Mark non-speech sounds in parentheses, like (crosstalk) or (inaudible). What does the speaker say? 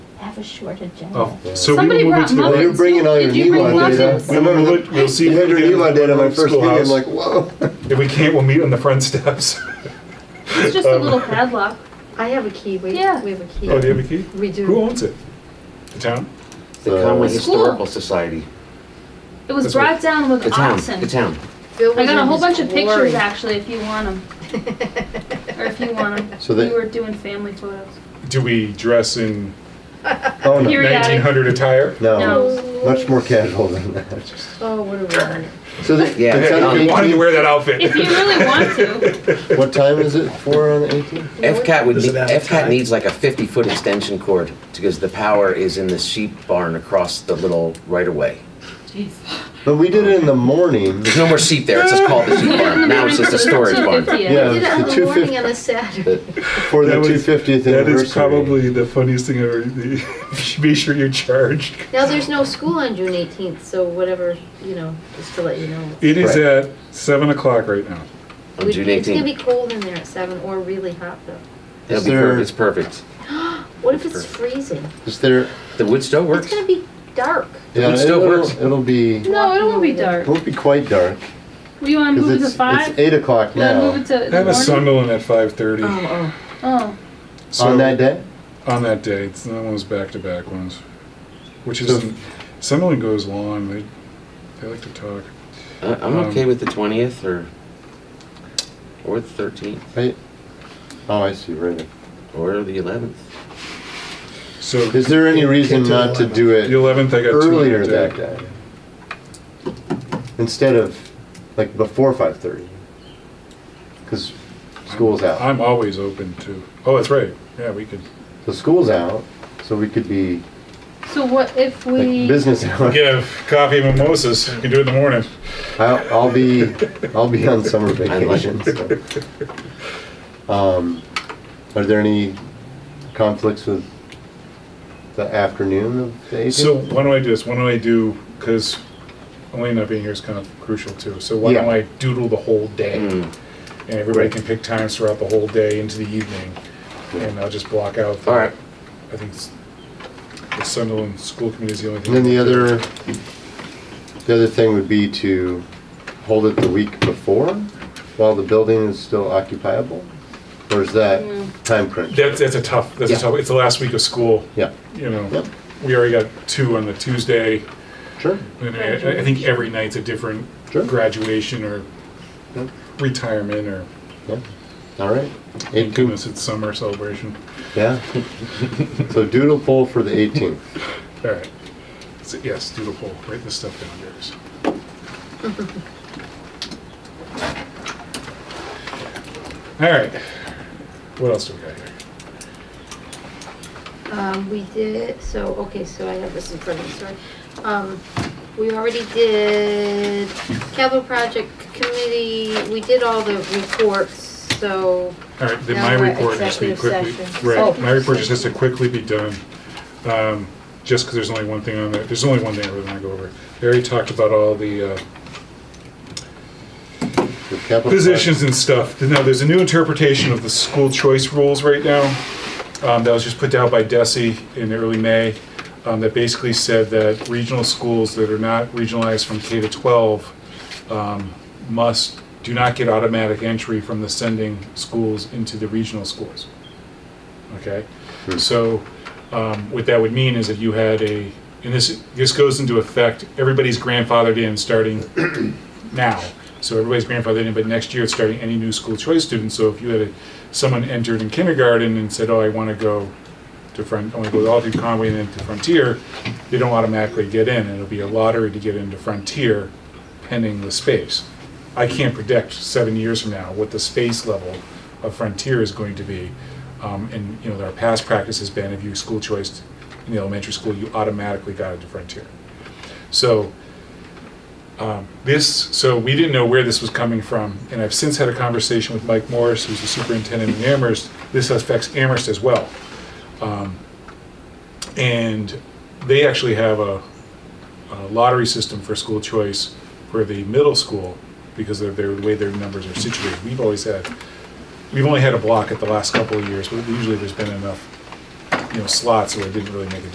have a short agenda. Oh, so Somebody we will move brought into the muffins. right. You're bringing all your We You will bring move muffins? into- we will look- We'll see. You if had we your can get Elon into did on my the first meeting, I'm schoolhouse. like, whoa. If we can't, we'll meet on the front (laughs) steps. It's just a Um, little padlock. I have a key, we, we Yeah. have a key. Oh, do you have a key? We do. Who owns it? The town? The Uh, Conway The school. Historical Society. It was That's what- brought down with The town, oxen. the town. Bill I was got a in whole his bunch of glory. pictures actually, if you want them, or if you want them. So they- we were doing family photos. Do we dress in (laughs) Oh, no, Period. Periodic. 1900 attire? no, No. much more casual than that. (laughs) Oh, what a word. So the, Yeah, it's um, on I the wanted to 18th. wear that outfit. If you really (laughs) want to, what time is it for on the 18th? FCAT would, Does it need- have a FCAT tie? needs like a 50-foot extension cord because the power is in the sheep barn across the little right-of-way. But we did it in the morning. There's no more sheep there, it's just called the sheep barn. Now it's just a storage barn. (laughs) 250. Yeah, We did it it's on the the morning 250 on a Saturday. The- for the That was- 250th That anniversary. is probably the funniest thing ever. (laughs) Be sure you're charged. Now, there's no school on June 18th, so whatever, you know, just to let you know. It is Right. at 7 o'clock right now. On We- June It's gonna 18th. be cold in there at seven, or really hot though. It'll Is be there- perfect, it's perfect. What if it's freezing? Is there? The wood stove It's works. gonna be dark. Yeah, It still it'll, works. it'll be. no, it won't be dark. Won't be quite dark We want to because move it it's, to it's five. eight o'clock We want to move now it to I have a the morning. Sunderland at 5.30 Oh, Oh, on that day. On that day. It's the ones back-to-back ones. Which So- is... Sunderland goes long. They, they like to talk. Uh, I'm Um, okay with the 20th or, or the 13th Right? Oh, I see. Right. or the 11th. So Is there any reason to not to eleven. do the it 11th, I got two earlier on that that day. day instead of like before five thirty? Because school's out. I'm always open to... Oh, that's right. Yeah, we could... So school's out, so we could be so what if like we? business hour. Give coffee and mimosas. You can do it in the morning. (laughs) I'll, (laughs) I'll be I'll be on summer vacation. so. Um, are there any conflicts with the afternoon of the 18th? So why don't I do this? Why don't I do, because Elaine not being here is kind of crucial too. So why don't Yeah. Hmm. I doodle the whole day? Mm. And everybody can pick times throughout the whole day into the evening. And I'll just block out. the- All right. I think s- the Sunderland School Committee is the only thing. and then the other the other thing would be to hold it the week before while the building is still occupiable, or is that time crunch? That's, that's a tough, that's a Yeah. tough, it's the last week of school, Yeah, you know. Yep. We already got two on the Tuesday. sure. And I, I think every night's a different Sure. graduation or Yep. retirement or, Yeah. All right. thank (laughs) 18th. goodness, it's summer celebration. Yeah. so doodle poll for the 18th. All right. So, yes, do the poll. Write this stuff down, Darius. All right. What else do we got here? um, we did, so, okay, so I have this in front of me, sorry. Um, we already did capital project committee, we did all the reports, so, All right, then Now my we're at report has to be quickly. executive session. Right, Oh. my report just has to quickly be done. Um, Just because there's only one thing on there, there's only one thing I really want to go over. I already talked about all the uh, The capital positions and stuff. Now, there's a new interpretation of the school choice rules right now um, that was just put out by DESI in early May um, that basically said that regional schools that are not regionalized from K to 12 um, must, do not get automatic entry from the sending schools into the regional schools. Okay? So um, what that would mean is that you had a, and this, this goes into effect, everybody's grandfathered in starting now. So everybody's grandfathered in, but next year it's starting any new school choice student. So if you had a, someone entered in kindergarten and said, oh, I want to go to Front, I want to go all through Conway and then to Frontier, they don't automatically get in. It'll be a lottery to get into Frontier pending the space. I can't predict seven years from now what the space level of Frontier is going to be. Um, and, you know, our past practice has been if you school choice in the elementary school, you automatically got into Frontier. So um, This, so we didn't know where this was coming from, and I've since had a conversation with Mike Morris, who's the superintendent in Amherst. This affects Amherst as well. Um, And they actually have a a lottery system for school choice for the middle school because of their, the way their numbers are situated. We've always had, we've only had a block at the last couple of years, but usually there's been enough, you know, slots where it didn't really make a